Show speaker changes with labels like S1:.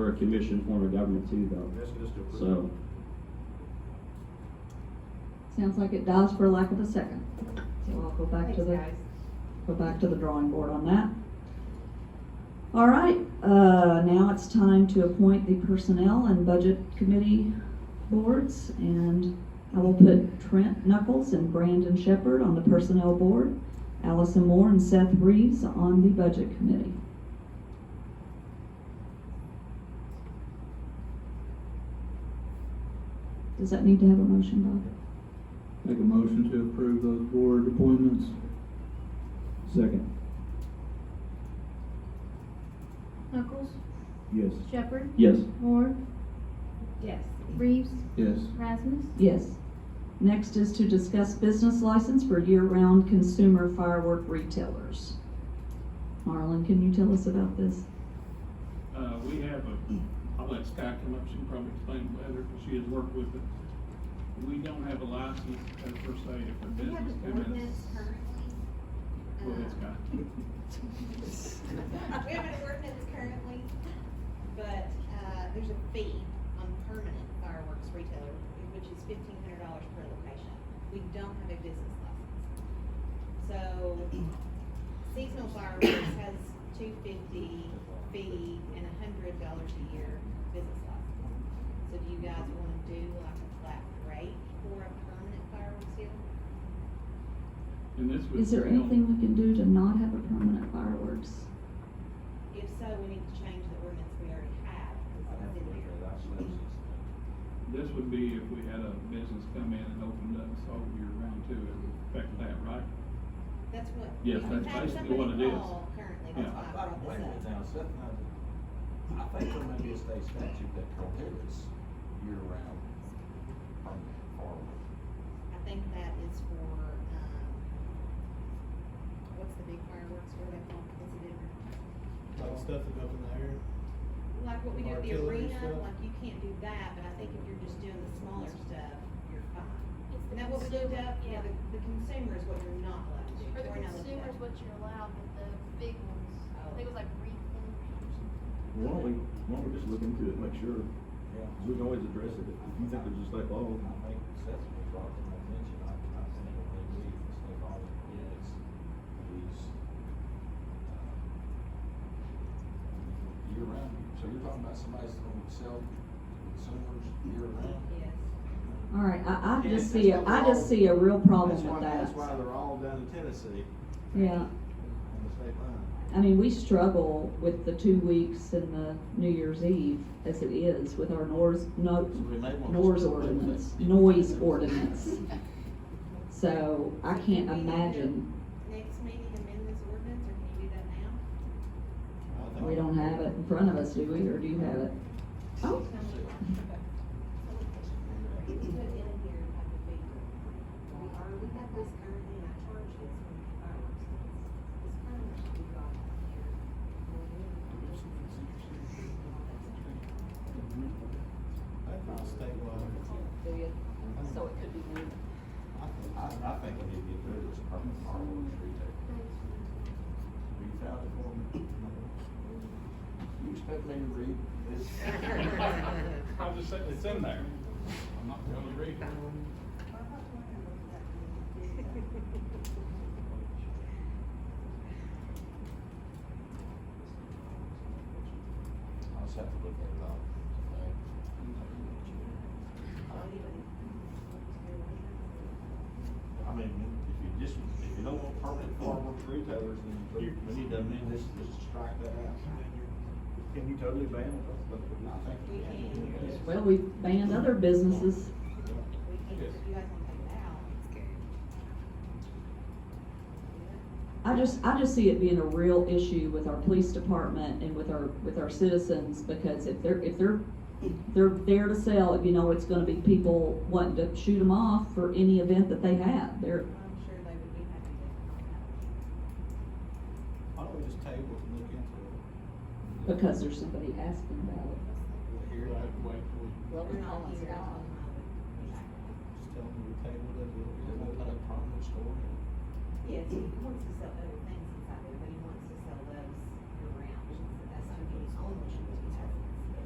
S1: a commission form of government too, though,
S2: Asking us to approve.
S1: so.
S3: Sounds like it dies for lack of a second. So I'll go back
S4: Thanks,
S3: to the,
S4: guys.
S3: go back to the drawing board on that. All right, uh, now it's time to appoint the Personnel and Budget Committee boards. And I will put Trent Knuckles and Brandon Shepherd on the Personnel Board, Allison Moore and Seth Reeves on the Budget Committee. Does that need to have a motion, Bob?
S5: Make a motion to approve those board appointments.
S1: Second.
S6: Knuckles,
S1: Yes.
S6: Shepherd,
S1: Yes.
S6: Moore,
S4: Yes.
S6: Reeves,
S5: Yes.
S6: Rasmus,
S3: Yes. Next is to discuss business license for year-round consumer firework retailers. Marlon, can you tell us about this?
S7: Uh, we have a, I'll let Sky come up, she can probably explain better, because she has worked with it. We don't have a license uh, per se if a
S4: We have
S7: business
S4: an
S7: comes in.
S4: ordinance currently.
S7: Go
S4: uh,
S7: ahead, Sky.
S4: um, We have an ordinance currently, but, uh, there's a fee on permanent fireworks retailer, which is fifteen hundred dollars per location. We don't have a business license. So seasonal fireworks has two fifty fee and a hundred dollars a year business license. So do you guys wanna do like a flat rate for a permanent fireworks deal?
S7: And this would.
S3: Is there
S7: fail.
S3: anything we can do to not have a permanent fireworks?
S4: If so, we need to change the ordinance we already have.
S2: I have to look at that. I've seen
S7: This would be if we had a business come in and opened up, so year round too, it would affect that, right?
S4: That's what.
S7: Yes,
S4: we've
S7: that's
S4: had
S7: basically what it
S4: somebody
S7: is.
S4: call Currently,
S7: Yeah.
S2: this.
S4: that's why I
S2: I don't
S4: brought
S2: blame it
S4: this up.
S2: now, Seth, and I, I think there may be a state statute that prohibits year-round permanent fireworks.
S4: I think that is for, um, what's the big fireworks, what are they called? Is it different?
S8: Like stuff that go up in the air.
S4: Like what we do at the
S8: Artillery
S4: arena,
S8: stuff?
S4: like you can't do that, but I think if you're just doing the smaller stuff, you're fine. Isn't that what we do up? Yeah, the, the consumer is what you're not allowed to do.
S6: For the
S4: We're not allowed to do
S6: consumers,
S4: that.
S6: what you're allowed, but the big ones, I think it was like Reeves or
S2: Why don't we,
S1: why don't we just look into it, make sure,
S2: Yeah.
S1: we can always address it, if you think there's a state law.
S2: I think Seth was brought to my attention, I, I think it may be a state law that prohibits these, um, year-round. So you're talking about somebody's gonna sell consumers year-round? Mm-hmm.
S4: Yes.
S3: All right, I, I
S8: Yeah,
S3: just see, a
S8: that's
S3: I just
S8: all.
S3: see a real problem
S8: That's why-
S3: with
S8: That's why
S3: that.
S8: they're all down in Tennessee
S3: Yeah,
S8: on the state line.
S3: I mean, we struggle with the two weeks and the New Year's Eve as it is with our NORS, no,
S8: So we may want to-
S3: NORS ordinance, noise ordinance. So I can't imagine,
S4: Next meeting, amend this ordinance, or can you do that now?
S8: I think-
S3: we don't have it in front of us, do we, or do you have it? Oh,
S4: Tell me. Put in here, like a paper. We are, we have this currently, I charge this when the fireworks. This currently should be brought up here.
S8: That's not state law. So it could be.
S2: I, I think we need to get rid of this permanent fireworks retail.
S6: something.
S2: Will you file it for me? You expect me to read this?
S7: I'm just saying, it's in there. I'm not gonna read it.
S2: I'll just have to look at it up. I mean, if you just, if you don't want permanent fireworks retailers, then you, we need to amend this, just to strike that out.
S1: Can you totally ban it?
S2: I think we can.
S3: Oh, well, we banned other businesses.
S4: We can, if you guys want to take it out.
S3: I just, I just see it being a real issue with our police department and with our, with our citizens, because if they're, if they're, they're there to sell, you know, it's gonna be people wanting to shoot them off for any event that they have, they're,
S4: I'm sure they would be happy to.
S8: Why don't we just table it and look into
S3: because there's somebody asking about it.
S8: it? Here,
S7: Right, wait, wait.
S4: Well, we're
S6: calling
S4: not
S6: it
S4: here.
S6: out.
S8: Just tell them we tabled it, we'll
S2: Is that
S8: get more
S2: not a
S8: time.
S2: permanent store?
S4: Yes, he wants to sell other things inside there, but he wants to sell those around, so that's gonna be his only.